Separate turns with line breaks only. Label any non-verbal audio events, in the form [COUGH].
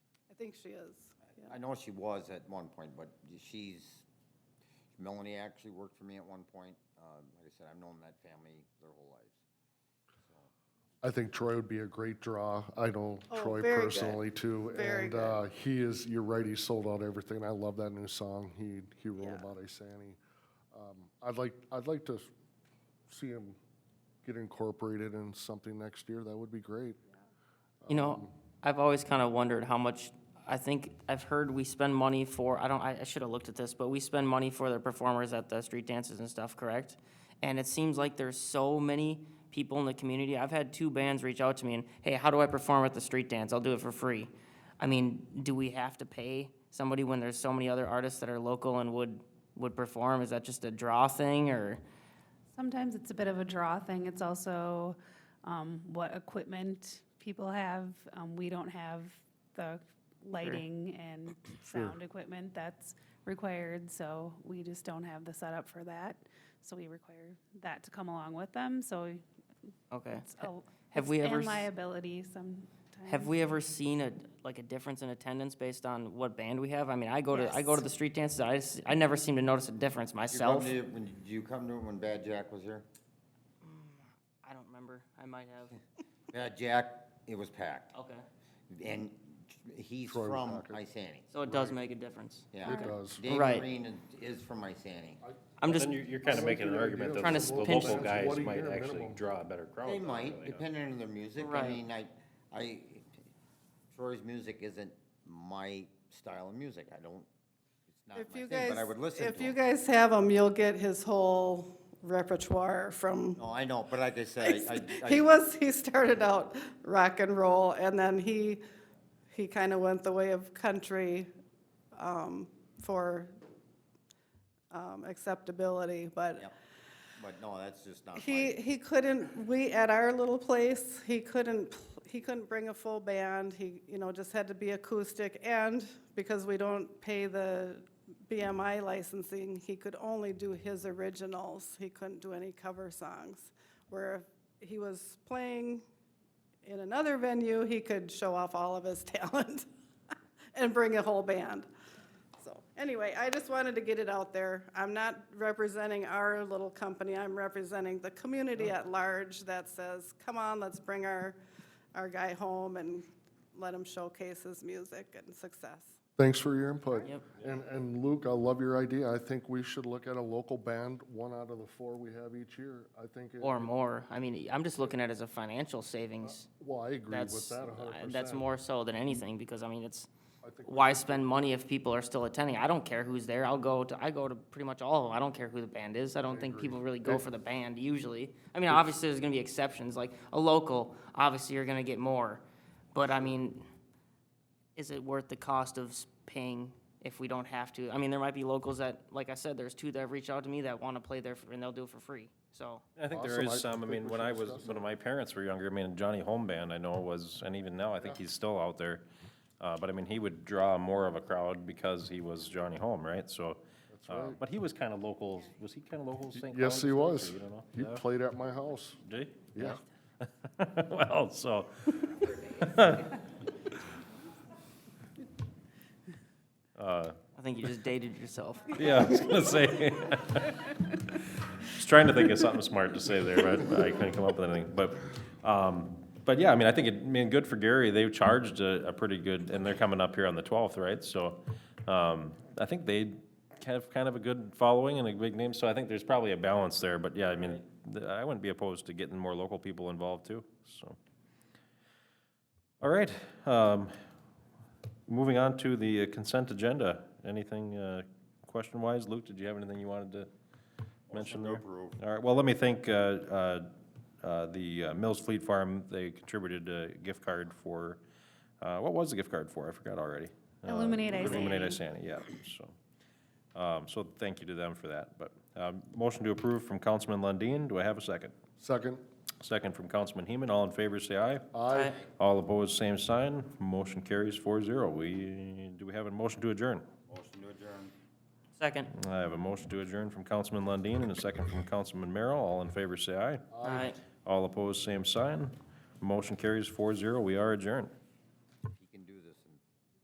think she is.
I know she was at one point, but she's, Melanie actually worked for me at one point. Uh, Like I said, I've known that family their whole lives.
I think Troy would be a great draw. I know
Oh,
Troy
very good.
personally too,
Very
and
good.
uh, he is. You're right. He sold out everything. I love that new song he he wrote
Yeah.
about Isani. Um, I'd like I'd like to s- see him get incorporated in something next year. That would be great.
You know, I've always kind of wondered how much, I think, I've heard we spend money for, I don't, I, I should have looked at this, but we spend money for the performers at the street dances and stuff, correct? And it seems like there's so many people in the community. I've had two bands reach out to me and, hey, how do I perform at the street dance? I'll do it for free. I mean, do we have to pay somebody when there's so many other artists that are local and would, would perform? Is that just a draw thing or?
Sometimes it's a bit of a draw thing. It's also um, what equipment people have. Um, we don't have the lighting and sound equipment that's required, so we just don't have the setup for that. So we require that to come along with them. So
Okay.
it's a,
Have we
it's
ever
and
s-
liability sometimes?
Have we ever seen a, like a difference in attendance based on what band we have? I mean, I go to, I go to the street dances, I, s- I never seem to notice a difference
You come
myself.
to- when- Did you come to it when Bad Jack was here?
I don't remember, I might [LAUGHS] have,
Bad Jack, it was packed.
okay.
And he's
Troy was
from
packed.
Isani.
So it does make a difference.
Yeah.
It does.
Dave
Right.
Green is- is from Isani.
I'm just,
Then you're, you're kind
I
of
like
making an
the
argument
idea
that
of
the
Trying to pinch-
local guys
What a
might
year
actually
minimum.
draw a better crowd.
They
than
might,
really, huh?
depending on their music. I
Right.
mean, I, I, Troy's music isn't my style of music. I don't, it's not my
If you
thing,
guys,
but I would listen to
if you
him.
guys have him, you'll get his whole repertoire from
No, I know, but like I said, I, I-
he was he started out rock and roll and then he he kind of went the way of country um, for um, acceptability but
Yep. But no, that's just not
he
my,
he couldn't we at our little place he couldn't pl- he couldn't bring a full band he you know just had to be acoustic and because we don't pay the BMI licensing he could only do his originals he couldn't do any cover songs where if he was playing in another venue he could show off all of his [LAUGHS] talent and bring a whole band so, anyway, I just wanted to get it out there. I'm not representing our little company, I'm representing the community at large that says, come on, let's bring our, our guy home and let him showcase his music and success.
Thanks for your input.
Yep.
And, and Luke, I love your idea. I think we should look at a local band, one out of the four we have each year. I think, it-
or more, I mean, I'm just looking at it as a financial savings.
well, I agree with
That's,
that hundred
I-
percent.
that's more so than anything, because I mean, it's, why spend money if people are still attending? I don't care who's there, I'll go to, I go to pretty much all of them, I don't care who the band is, I don't think people really go for the band usually. I mean, obviously, there's gonna be exceptions, like a local, obviously, you're gonna get more, but I mean, is it worth the cost of s- paying if we don't have to? I mean, there might be locals that, like I said, there's two that reach out to me that wanna play there, for- and they'll do it for free, so.
I think there
Awesome. I
is some, I
think
mean,
we
when
should
I was,
discuss
when my parents were younger, I mean, Johnny Home Band, I know was, and even now, I think he's still out there. Uh, but I mean, he would draw more of a crowd because he was Johnny Home, right? So, uh, but he was kind of local, was he kind of local St. Cloud?
Yes, he
still, or
was.
You don't know?
He played at my house.
Did he?
Yeah.
[LAUGHS] Well, so,
I think you just dated yourself.
yeah, I was gonna say. I was trying to think of something smart to say there, but I couldn't come up with anything. But, um, but yeah, I mean, I think it, I mean, good for Gary. They've charged a, a pretty good, and they're coming up here on the twelfth, right? So, um, I think they have kind of a good following and a big name, so I think there's probably a balance there. But yeah, I mean, th- I wouldn't be opposed to getting more local people involved too, so. All right, um, Moving on to the uh, consent agenda, anything uh, question-wise? Luke, did you have anything you wanted to mention there? All right, well, let me thank uh, uh, uh, the uh, Mills Fleet Farm, they contributed a gift card for, uh, what was the gift card for? I forgot already. Uh,
Illuminate Isani.
Illuminate Isani, yeah, so. um, So thank you to them for that, but um, motion to approve from Councilman Lundin, do I have a second?
Second,
Second from Councilman Heeman, all in favor, say aye.
aye.
All opposed, same sign. Motion carries four zero. We, do we have a motion to adjourn?
motion to adjourn.
Second.
I have a motion to adjourn from Councilman Lundin and a second from Councilman Merrill. All in favor, say aye.
All right.
All opposed, same sign. Motion carries four zero. We are adjourned.